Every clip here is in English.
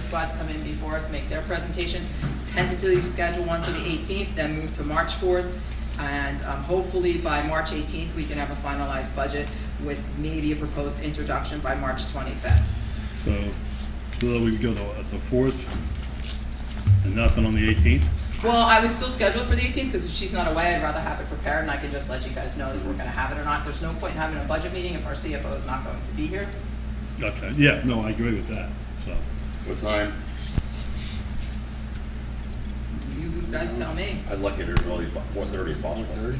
squads come in before us, make their presentations. Tentatively schedule one for the 18th, then move to March 4th. And um, hopefully by March 18th, we can have a finalized budget with maybe a proposed introduction by March 25th. So, so that we go the, the fourth, and nothing on the eighteenth? Well, I would still schedule it for the 18th, because if she's not away, I'd rather have it prepared, and I can just let you guys know if we're gonna have it or not. There's no point in having a budget meeting if our CFO is not going to be here. Okay, yeah, no, I agree with that, so. What time? You guys tell me. I'd like it as early as four thirty if possible. Four thirty?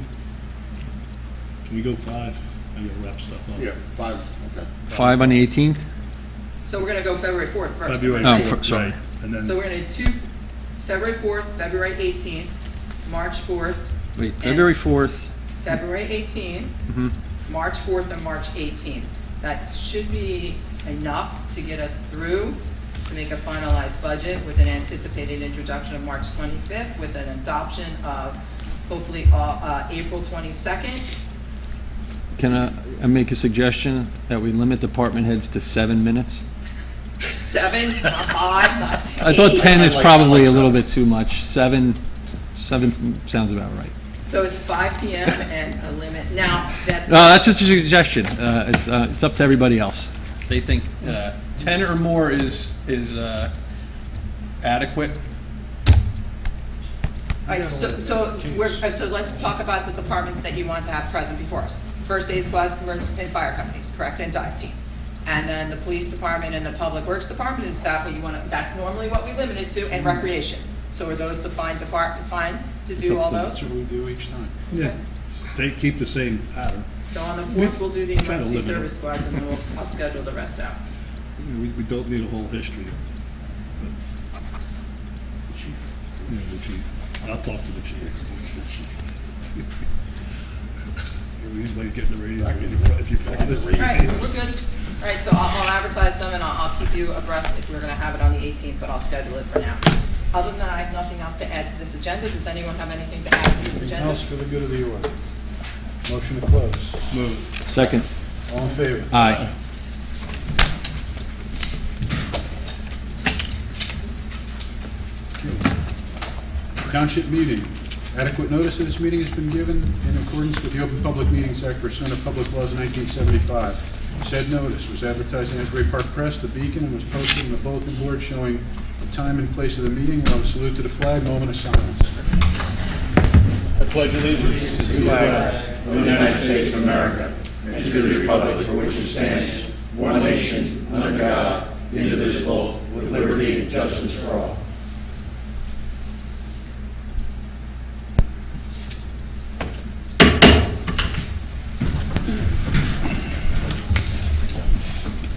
Can we go five? I gotta wrap stuff up. Yeah, five, okay. Five on the 18th? So we're gonna go February 4th first. February Oh, right? fir- fourth, sorry. right, and So then, we're gonna do two, February 4th, February 18th, March 4th, Wait, February 4th, February 18th, Mm-hmm. March 4th, and March 18th. That should be enough to get us through to make a finalized budget with an anticipated introduction of March 25th, with an adoption of hopefully uh, uh, April 22nd. can I, I make a suggestion that we limit department heads to seven minutes? Seven, not five, not I thought eight. 10 is I like- probably I a like little bit too much. Seven, seven s- sounds about right. So it's 5 PM and a limit. Now, that's. No, Uh, that's just a suggestion. Uh, It's, uh, it's up to everybody else. they think uh, 10 or more is, is uh, adequate. All right, so, so we're, uh, so let's talk about the departments that you want to have present before us. First aid squads, emergency and fire companies, correct, and dive team. And then the police department and the public works department, is that what you want to, that's normally what we limit it to, and recreation. So are those defined depart, defined to do all those? That's what we do each time. yeah, they keep the same pattern. So on the fourth, we'll do the Try to emergency limit it. service squads, and then we'll, I'll schedule the rest out. You know, We, we don't need a whole history. Yeah, the chief. I'll talk to the chief. Anybody get the radio? If you Back in the All radio. right, we're good. All right, so I'll, I'll advertise them, and I'll, I'll keep you abreast if we're gonna have it on the 18th, but I'll schedule it for now. Other than that, I have nothing else to add to this agenda. Does anyone have anything to add to this Anything agenda? else for the good of the order? Motion to close. Move it. Second, All in favor? aye. Township meeting. Adequate notice of this meeting has been given in accordance with the Open Public Meetings Act pursuant to public laws of 1975. Said notice was advertised in Asbury Park Press, the Beacon, and was posted in the bulletin board showing the time and place of the meeting. We'll have a salute to the flag, moment of silence. I pledge allegiance to the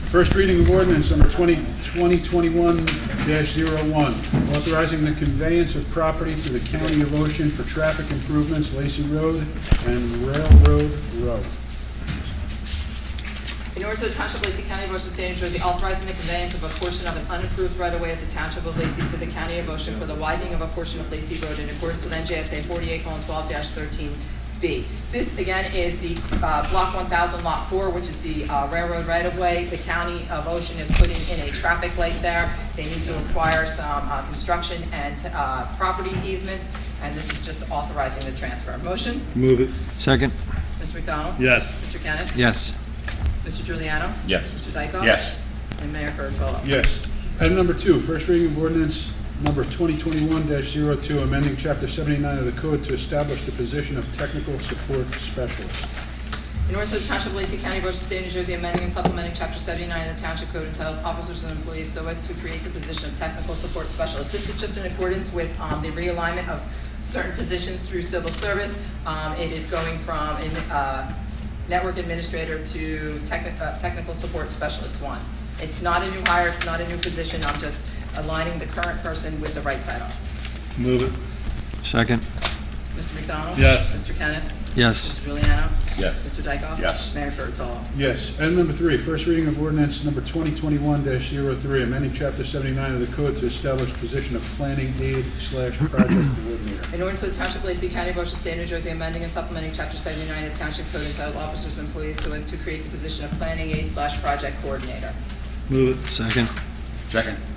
First reading of ordinance number 20 2021-01, authorizing the conveyance of property to the County of Ocean for traffic improvements, Lacey Road and Railroad Road. In order to the Township of Lacey County, of Ocean State, New Jersey, authorizing the conveyance of a portion of an unapproved right-of-way of the Township of Lacey to the County of Ocean for the widening of a portion of Lacey Road in accordance with NJSA 48:12-13B. This, again, is the uh, Block 1000, Lot 4, which is the uh, railroad right-of-way. The County of Ocean is putting in a traffic light there. They need to acquire some uh, construction and uh, property easements, and this is just authorizing the transfer. Motion, Move it. Second, Mr. McDonald? Yes. Mr. Kennis? yes. Mr. Juliano? Yes. Mr. Dykoff? Yes. And Mayor Kurtolo? Yes. Item number two, first reading of ordinance number 2021-02, amending Chapter 79 of the Code to establish the position of technical support specialist. In order to the Township of Lacey County, Ocean State, New Jersey, amending and supplementing Chapter 79 of the Township Code entitled Officers and Employees so as to create the position of Technical Support Specialist. This is just in accordance with um, the realignment of certain positions through civil service. Um, It is going from uh, Network Administrator to techni- uh, Technical Support Specialist 1. It's not a new hire, it's not a new position, I'm just aligning the current person with the right title. Move it. Second, Mr. McDonald? Yes. Mr. Kennis? yes. Mr. Juliano? Yes. Mr. Dykoff? Yes. Mayor Kurtolo? Yes. Item number three, first reading of ordinance number 2021-03, amending Chapter 79 of the Code to establish position of planning aid slash project coordinator. In order to the Township of Lacey County, Ocean State, New Jersey, amending and supplementing Chapter 79 of the Township Code entitled Officers and Employees so as to create the position of Planning Aid slash Project Coordinator. Move it. Second. Second.